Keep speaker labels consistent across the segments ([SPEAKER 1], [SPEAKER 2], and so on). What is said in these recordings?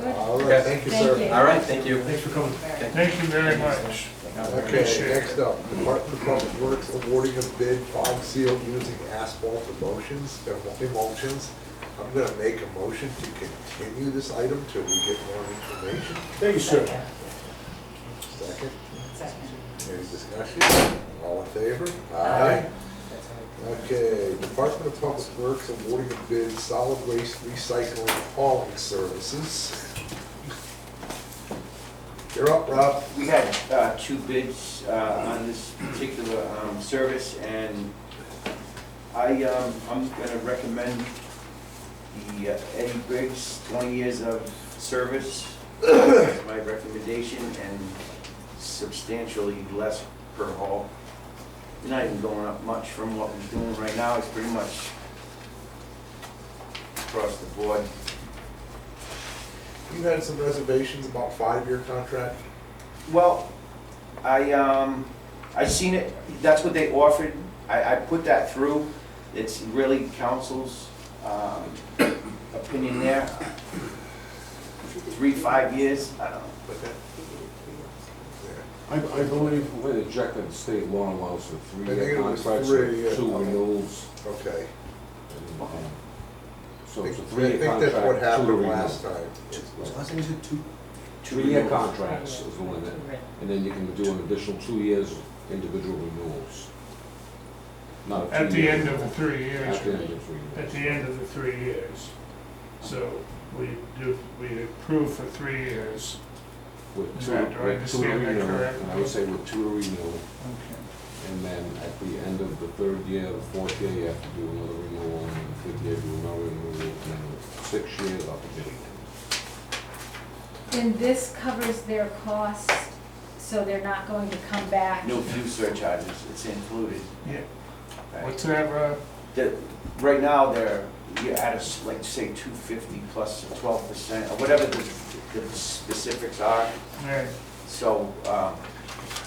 [SPEAKER 1] Okay.
[SPEAKER 2] Thank you,
[SPEAKER 3] Thank
[SPEAKER 2] sir.
[SPEAKER 3] you.
[SPEAKER 1] All right, thank you.
[SPEAKER 2] Thanks for coming.
[SPEAKER 4] Thank you very much.
[SPEAKER 2] Okay, next up, Department of Public Works awarding a bid bog seal using asphalt emulsions, emulsions. I'm gonna make a motion to continue this item till we get more information.
[SPEAKER 5] Thank you, sir.
[SPEAKER 2] Second,
[SPEAKER 3] Second.
[SPEAKER 2] any discussion? All in favor? Aye. Okay, Department of Public Works awarding a bid solid waste recycling hauling services. You're up, Rob.
[SPEAKER 6] We had uh, two bids uh, on this particular um, service, and I, um, I'm gonna recommend the uh, Eddie Briggs, 20 years of service, is my recommendation, and substantially less per haul. You're Not even going up much from what we're doing right now, it's pretty much across the board.
[SPEAKER 2] You had some reservations about five-year contract?
[SPEAKER 6] Well, I, um, I seen it, that's what they offered, I, I put that through, it's really council's, um, opinion there. Three, five years, I don't know.
[SPEAKER 2] Okay.
[SPEAKER 5] I, I believe when it checked the state law allows for
[SPEAKER 2] I think
[SPEAKER 5] three-year
[SPEAKER 2] it was
[SPEAKER 5] contracts,
[SPEAKER 2] three, yeah.
[SPEAKER 5] with two renewals.
[SPEAKER 2] Okay.
[SPEAKER 5] and, um, So
[SPEAKER 2] I
[SPEAKER 5] it's
[SPEAKER 2] think I
[SPEAKER 5] a three-year
[SPEAKER 2] think that's what
[SPEAKER 5] contract, two
[SPEAKER 2] happened
[SPEAKER 5] renewals.
[SPEAKER 2] last time.
[SPEAKER 5] Three-year
[SPEAKER 6] renewals.
[SPEAKER 5] contracts is the limit, and then you can do an additional two years individual renewals. Not a
[SPEAKER 4] At the
[SPEAKER 5] two-year
[SPEAKER 4] end of the
[SPEAKER 5] renewal.
[SPEAKER 4] three years,
[SPEAKER 5] At the end of three years.
[SPEAKER 4] at the end of the three years. So we do, we approve for three years.
[SPEAKER 5] With
[SPEAKER 4] Is
[SPEAKER 5] two,
[SPEAKER 4] that- do I
[SPEAKER 5] with two to
[SPEAKER 4] understand that
[SPEAKER 5] renew,
[SPEAKER 4] correctly?
[SPEAKER 5] and I would say with two to renew, and then at the end of the third year, the fourth year, you have to do another renewal, and the fifth year, do another renewal, and then six years up to date.
[SPEAKER 3] Then this covers their costs, so they're not going to come back.
[SPEAKER 6] No fuel surcharges, it's included.
[SPEAKER 4] Yeah,
[SPEAKER 6] right?
[SPEAKER 4] what's that, Rob?
[SPEAKER 6] The, right now, they're, you're at a, s- like, say, two fifty plus twelve percent, or whatever the, the specifics are.
[SPEAKER 4] Right.
[SPEAKER 6] So, um,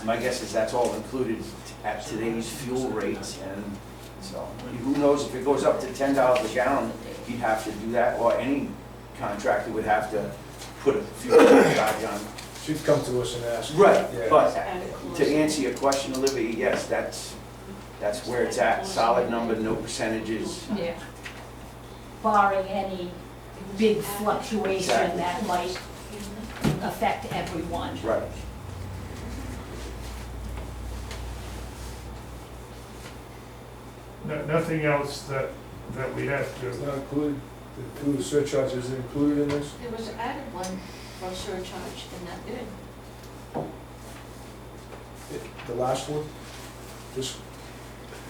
[SPEAKER 6] my guess is that's all included at today's fuel rates, and so, who knows, if it goes up to ten dollars a gallon, you'd have to do that, or any contractor would have to put a fuel charge on.
[SPEAKER 5] She'd come to us and ask.
[SPEAKER 6] Right, but to answer your question, Olivia, yes, that's, that's where it's at, solid number, no percentages.
[SPEAKER 3] Yeah. Barring any big fluctuation that might affect everyone.
[SPEAKER 6] Right.
[SPEAKER 4] No- Nothing else that, that we have
[SPEAKER 5] It's
[SPEAKER 4] to,
[SPEAKER 5] not included, the two surcharges are included in this?
[SPEAKER 7] There was added one for surcharge in that bid.
[SPEAKER 5] The last one? This,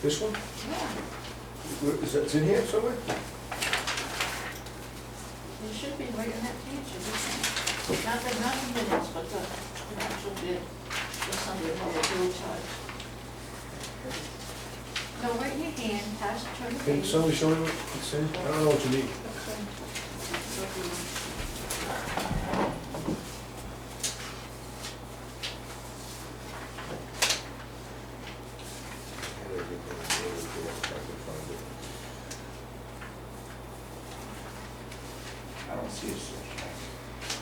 [SPEAKER 5] this one?
[SPEAKER 7] Yeah,
[SPEAKER 5] Is that, it's in here somewhere?
[SPEAKER 7] it should be right in that page, isn't it? Not the, not the minutes, but the the actual bid for Sunday, for the fuel charge. Go right in your hand, pass, turn the
[SPEAKER 5] Can
[SPEAKER 7] page.
[SPEAKER 5] somebody show me what it's in? I don't know what you need.
[SPEAKER 6] I don't see a surcharge.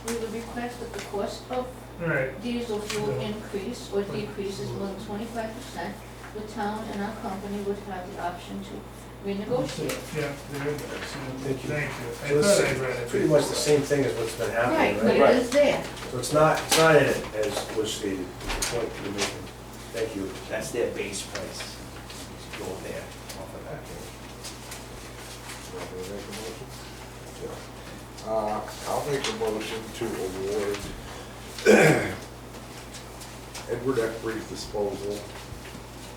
[SPEAKER 7] We would request that the cost of
[SPEAKER 4] right,
[SPEAKER 7] diesel fuel increase or decrease is more than twenty-five percent. The town and our company would have the option to renegotiate.
[SPEAKER 4] yeah. there it is.
[SPEAKER 8] Thank you.
[SPEAKER 4] Thank you.
[SPEAKER 8] So
[SPEAKER 4] I thought
[SPEAKER 8] this
[SPEAKER 4] I read it.
[SPEAKER 8] Pretty much the same thing as what's been
[SPEAKER 7] Right,
[SPEAKER 8] happening,
[SPEAKER 7] but
[SPEAKER 8] right?
[SPEAKER 7] it is there.
[SPEAKER 8] So it's not, it's not in it as was stated, is the point you're making. Thank you.
[SPEAKER 6] That's their base price, Just go there, off of that.
[SPEAKER 2] Uh, I'll make a motion to award Edward Eckery's disposal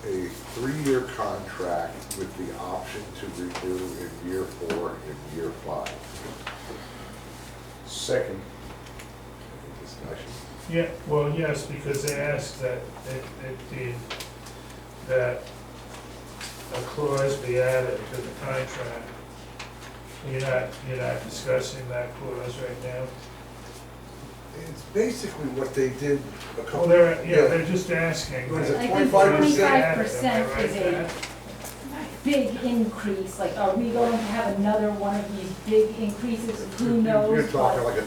[SPEAKER 2] a three-year contract with the option to renew in year four and year five.
[SPEAKER 8] Second.
[SPEAKER 2] Any discussion?
[SPEAKER 4] Yeah, well, yes, because they asked that, that, that the, that a clause be added to the contract. You're not, you're not discussing that clause right now?
[SPEAKER 2] It's basically what they did a
[SPEAKER 4] Well,
[SPEAKER 2] couple.
[SPEAKER 4] they're, yeah, they're just asking.
[SPEAKER 2] What is
[SPEAKER 3] I
[SPEAKER 2] it,
[SPEAKER 3] think
[SPEAKER 2] twenty-five percent?
[SPEAKER 3] 25% is a- Big increase, like, are we going to have another one of these big increases? Who knows?
[SPEAKER 2] You're talking
[SPEAKER 3] what-
[SPEAKER 2] like a